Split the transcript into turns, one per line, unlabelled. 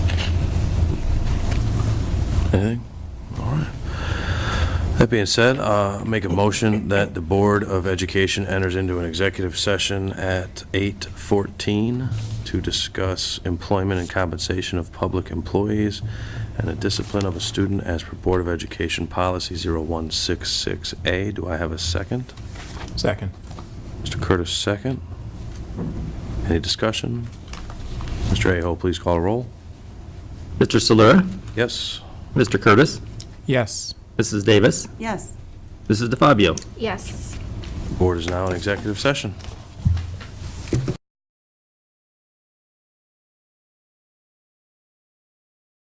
Anything? All right. That being said, uh, make a motion that the Board of Education enters into an executive session at 8:14 to discuss employment and compensation of public employees and the discipline of a student as per Board of Education Policy 0166A. Do I have a second?
Second.
Mr. Curtis, second. Any discussion? Mr. Aho, please call a roll.
Mr. Solera?
Yes?
Mr. Curtis?
Yes.
Mrs. Davis?
Yes.
Mrs. DeFabio?
Yes.
Board is now in executive session.